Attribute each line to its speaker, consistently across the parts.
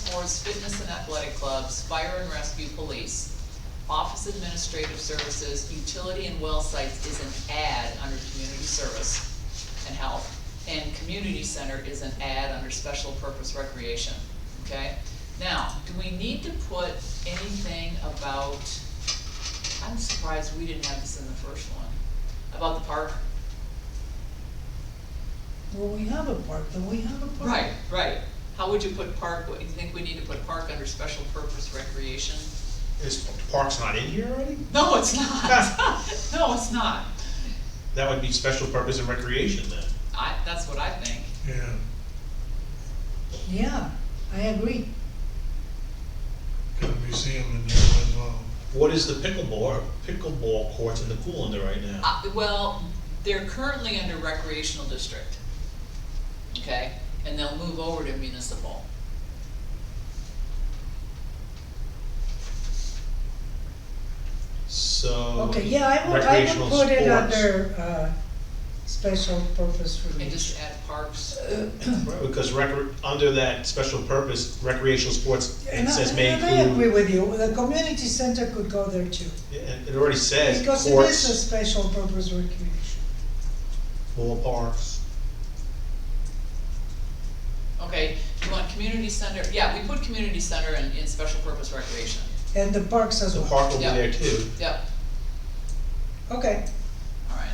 Speaker 1: force, fitness and athletic clubs, fire and rescue, police. Office administrative services, utility and well sites is an ad under community service and health. And community center is an ad under special purpose recreation, okay? Now, do we need to put anything about, I'm surprised we didn't have this in the first one, about the park?
Speaker 2: Well, we have a park, then we have a park.
Speaker 1: Right, right. How would you put park, what, you think we need to put park under special purpose recreation?
Speaker 3: Is parks not in here already?
Speaker 1: No, it's not. No, it's not.
Speaker 3: That would be special purpose and recreation then.
Speaker 1: I, that's what I think.
Speaker 4: Yeah,
Speaker 2: Yeah, I agree.
Speaker 4: got a museum in there as well.
Speaker 3: What is the pickleball, pickleball courts in the pool under right now?
Speaker 1: Uh, well, they're currently under recreational district. Okay, and they'll move over to municipal.
Speaker 3: So.
Speaker 2: Okay, yeah, I would, I
Speaker 3: Oh, recreational
Speaker 2: would put it
Speaker 3: sports.
Speaker 2: under, uh, special purpose Uh,
Speaker 1: And
Speaker 2: relief.
Speaker 1: just add parks.
Speaker 3: Right, Because recre, under that special purpose recreational sports, it
Speaker 2: And I-
Speaker 3: says may
Speaker 2: And I agree
Speaker 3: include,
Speaker 2: with you, the community center could go there too,
Speaker 3: it it already says
Speaker 2: because it is a
Speaker 3: courts,
Speaker 2: special purpose recreation.
Speaker 3: ballparks.
Speaker 1: Okay, you want community center, yeah, we put community center in, in special purpose recreation.
Speaker 2: And the parks as
Speaker 3: The
Speaker 2: well,
Speaker 3: park will be
Speaker 1: Yeah.
Speaker 3: there too.
Speaker 1: Yep,
Speaker 2: okay,
Speaker 1: alright.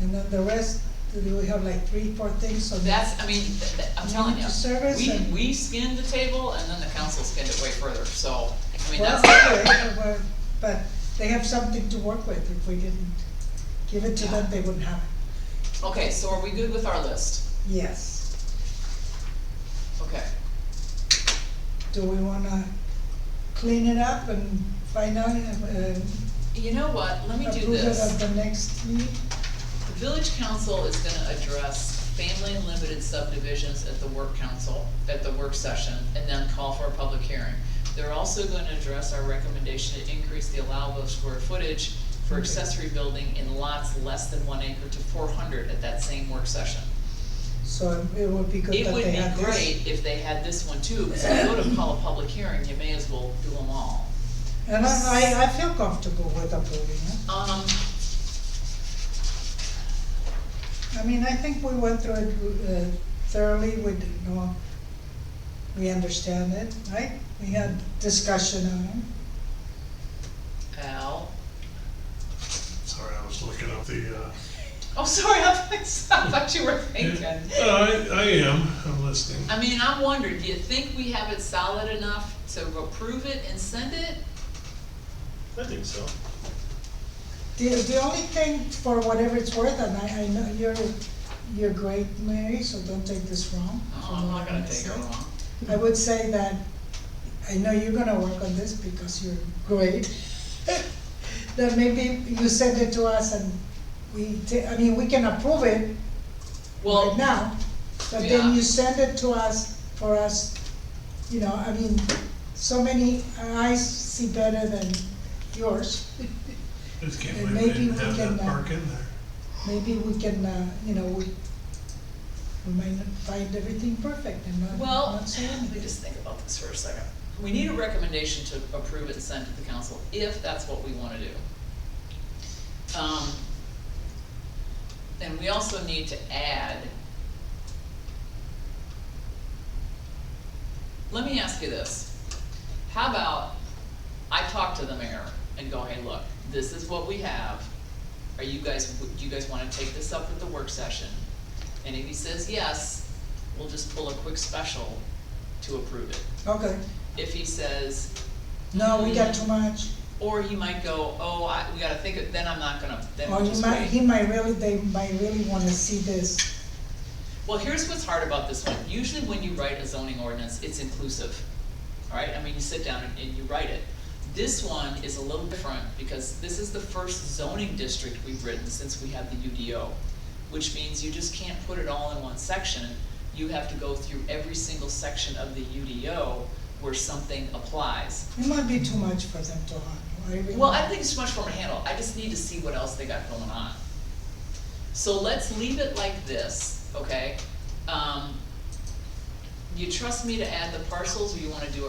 Speaker 2: and then the rest, do we have like three, four things
Speaker 1: So
Speaker 2: on that?
Speaker 1: that's, I mean, th- th- I'm telling you,
Speaker 2: Community service
Speaker 1: we,
Speaker 2: and-
Speaker 1: we skinned the table and then the council skinned it way further, so, I mean,
Speaker 2: Well,
Speaker 1: that's.
Speaker 2: okay, well, but they have something to work with, if we didn't give it to them, they wouldn't have it,
Speaker 1: Okay, so are we good with our list?
Speaker 2: yes.
Speaker 1: Okay,
Speaker 2: Do we wanna clean it up and find out, uh,
Speaker 1: you know what, let me do
Speaker 2: approve it at
Speaker 1: this.
Speaker 2: the next meeting?
Speaker 1: The village council is gonna address family and limited subdivisions at the work council, at the work session, and then call for a public hearing. They're also gonna address our recommendation to increase the allowable square footage for accessory building in lots less than one acre to four hundred at that same work session.
Speaker 2: So it would be good
Speaker 1: It
Speaker 2: that
Speaker 1: would
Speaker 2: they have
Speaker 1: be
Speaker 2: this.
Speaker 1: great if they had this one too, because if you go to call a public hearing, you may as well do them all.
Speaker 2: And I, I, I feel comfortable with approving it.
Speaker 1: Um,
Speaker 2: I mean, I think we went through it uh, thoroughly, we didn't know, we understand it, right? We had discussion on it.
Speaker 1: Al,
Speaker 4: Sorry, I was looking up the, uh.
Speaker 1: oh, sorry, I thought I thought you were thinking.
Speaker 4: No, Uh, I, I am, I'm listening.
Speaker 1: I mean, I wonder, do you think we have it solid enough to approve it and send it?
Speaker 3: I think so.
Speaker 2: The, the only thing, for whatever it's worth, and I, I know you're, you're great, Mary, so don't take this wrong.
Speaker 1: No,
Speaker 2: from
Speaker 1: Oh, I'm
Speaker 2: what
Speaker 1: not gonna
Speaker 2: say.
Speaker 1: take it wrong.
Speaker 2: I would say that, I know you're gonna work on this because you're great. That maybe you send it to us and we, ta- I mean, we can approve it right
Speaker 1: Well,
Speaker 2: now, but
Speaker 1: Yeah.
Speaker 2: then you send it to us for us, you know, I mean, so many eyes see better than yours.
Speaker 4: Just can't
Speaker 2: And
Speaker 4: believe they
Speaker 2: maybe
Speaker 4: didn't
Speaker 2: we
Speaker 4: have that
Speaker 2: can, uh,
Speaker 4: park in there.
Speaker 2: Maybe we can, uh, you know, we, we might not find everything perfect and not,
Speaker 1: well,
Speaker 2: not say
Speaker 1: let me
Speaker 2: anything.
Speaker 1: just think about this for a second. We need a recommendation to approve it and send to the council, if that's what we wanna do. Um, and we also need to add. Let me ask you this. How about, I talk to the mayor and go, hey, look, this is what we have. Are you guys, do you guys wanna take this up at the work session? And if he says yes, we'll just pull a quick special to approve it.
Speaker 2: Okay,
Speaker 1: If he says,
Speaker 2: no, we got too much.
Speaker 1: or he might go, oh, I, we gotta think, of then I'm not gonna, then
Speaker 2: Or
Speaker 1: we'll
Speaker 2: he
Speaker 1: just
Speaker 2: might, he
Speaker 1: wait.
Speaker 2: might really, they might really wanna see this,
Speaker 1: Well, here's what's hard about this one, usually when you write a zoning ordinance, it's inclusive, alright, I mean, you sit down and, and you write it. This one is a little different, because this is the first zoning district we've written since we had the UDO, which means you just can't put it all in one section, you have to go through every single section of the UDO where something applies.
Speaker 2: it might be too much for them to handle, I really.
Speaker 1: Well, I think it's too much for them to handle, I just need to see what else they got going on. So let's leave it like this, okay? Um, you trust me to add the parcels, or you wanna do a